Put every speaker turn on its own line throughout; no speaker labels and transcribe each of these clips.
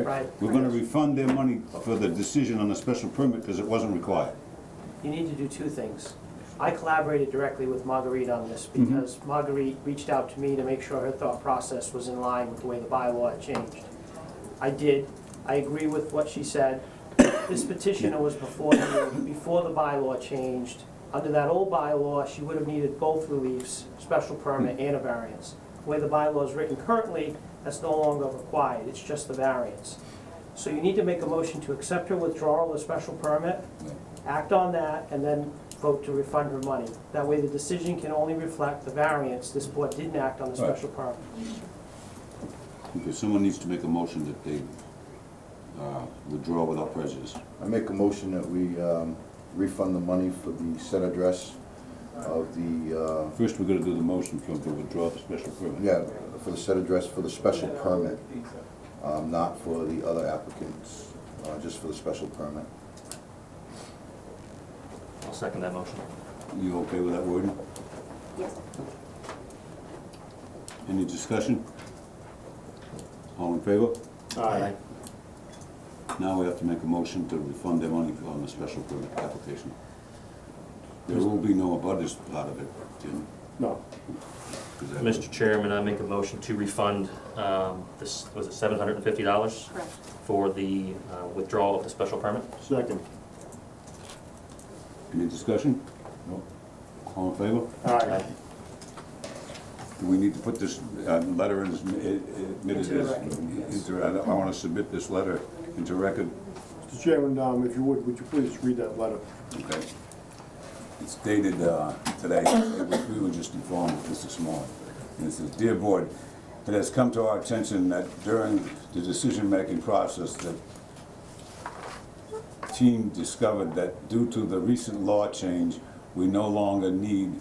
Right.
We're gonna refund their money for the decision on the special permit because it wasn't required.
You need to do two things. I collaborated directly with Marguerite on this because Marguerite reached out to me to make sure her thought process was in line with the way the bylaw had changed. I did. I agree with what she said. This petitioner was before, the- before the bylaw changed. Under that old bylaw, she would have needed both reliefs, special permit and a variance. The way the bylaw is written currently, that's no longer required. It's just the variance. So you need to make a motion to accept her withdrawal of the special permit, act on that, and then vote to refund her money. That way, the decision can only reflect the variance, this board didn't act on the
Right.
special permit.
Okay, someone needs to make a motion that they uh, withdraw without prejudice.
I make a motion that we um, refund the money for the set address of the, uh,
First, we're gonna do the motion for to withdraw the special permit.
yeah, for the set address for the special permit, um, not for the other applicants, uh, just for the special permit.
I'll second that motion.
You okay with that wording?
Yes.
Any discussion? All in favor?
Aye.
Now we have to make a motion to refund their money on the special permit application. There will be no abutters part of it, Jim.
No.
'cause that-
Mr. Chairman, I make a motion to refund, um, this, was it seven hundred and fifty dollars?
Correct.
For the uh, withdrawal of the special permit?
Second.
Any discussion? No. All in favor?
Aye.
Do we need to put this uh, letter in, as mi- i- admitted
Into the
as,
record,
into- I I wanna submit this letter into record,
Mr. Chairman, um, if you would, would you please read that letter?
okay? It's dated uh, today, It was- we were just informed of this this morning. And it says, "Dear Board, it has come to our attention that during the decision-making process that team discovered that due to the recent law change, we no longer need,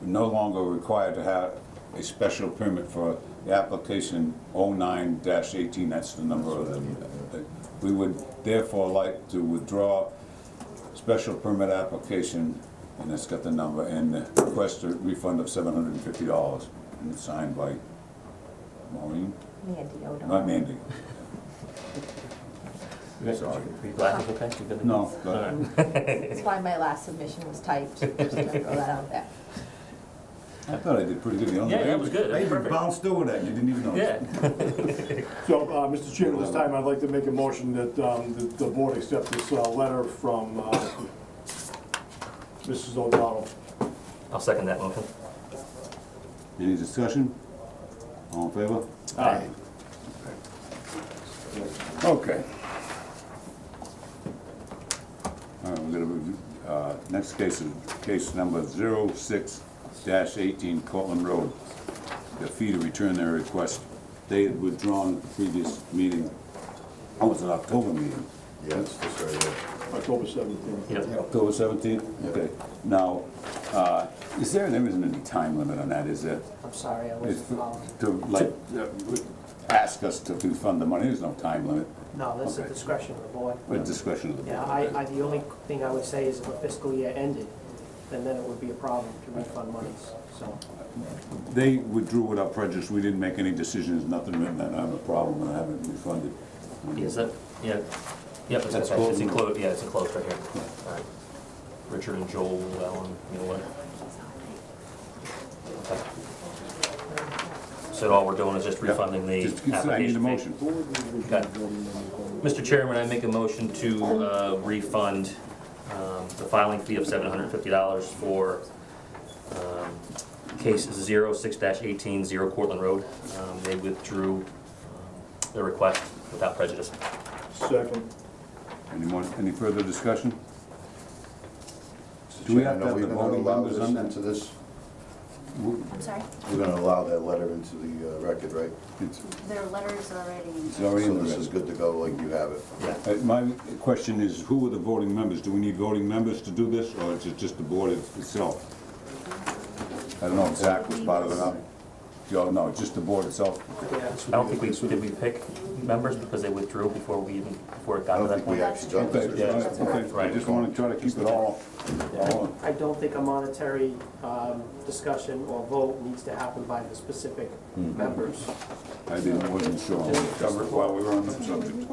no longer required to have a special permit for the application 09-18, that's the number of the, we would therefore like to withdraw special permit application, and it's got the number, and request a refund of $750, and it's signed by Maureen,
Mandy O'Donnell.
not Mandy. Sorry.
Are you glad it's okay? You good to go?
No,
All
but-
right.
That's why my last submission was typed, just to throw that out there.
I thought I did pretty good. The only
Yeah, that
thing-
was good. That
I
was
even
perfect.
bounced over that, you didn't even notice.
Yeah.
So, uh, Mr. Chairman, this time I'd like to make a motion that, um, the, the board accept this, uh, letter from, uh, Mrs. O'Donnell.
I'll second that motion.
Any discussion? All in favor?
Aye.
Okay. All right, we're gonna, review- uh, next case is case number zero six dash eighteen Cortland Road. The fee to return their request. They had withdrawn at the previous meeting. Oh, it's an October meeting.
Yes, that's right, yeah.
October seventeenth.
Yep.
October seventeenth? Okay. Now, uh, is there, there isn't any time limit on that, is there?
I'm sorry, I
It's
wasn't
To, to,
following.
like, uh, ask us to refund the money, there's no time limit,
No, that's the
Okay.
discretion of the board.
but discretion of the board.
Yeah, I, I, the only thing I would say is if the fiscal year ended, then then it would be a problem to refund monies, so.
They withdrew without prejudice, we didn't make any decisions, nothing written, and I have a problem, and I haven't refunded.
Is that, yeah, yep, it's,
That's
it's
cool.
enclosed, yeah, it's enclosed right here. All right. Richard and Joel Allen, you know what? Okay. So all we're doing is just refunding the
Just-
application
I need a
fee.
motion.
Okay. Mr. Chairman, I make a motion to uh, refund um, the filing fee of $750 for um, case 06-18, 0 Cortland Road. Um, They withdrew um, their request without prejudice.
Second.
Any more, any further discussion?
Mr.
Do we have to
Chairman, are
have the
we gonna
voting
allow
members
this
on that?
Into this,
I'm sorry,
we're gonna allow that letter into the uh, record, right?
It's
their letter's already.
it's already in
So
the
this is
record.
good to go, like you have it.
Uh, My question is, who are the voting members? Do we need voting members to do this, or is it just the board itself? I don't know if Zach was part of it, or not. Joe, no, just the board itself?
Yeah.
I don't think we, did we pick members because they withdrew before we even, before it
I
got to
don't
that
think we
point?
actually done
Okay,
this.
Yeah.
yeah, okay, I just wanna try to keep it all, all,
I don't think a monetary um, discussion or vote needs to happen by the specific members.
I didn't, wasn't sure, I'll cover it while we were on the subject.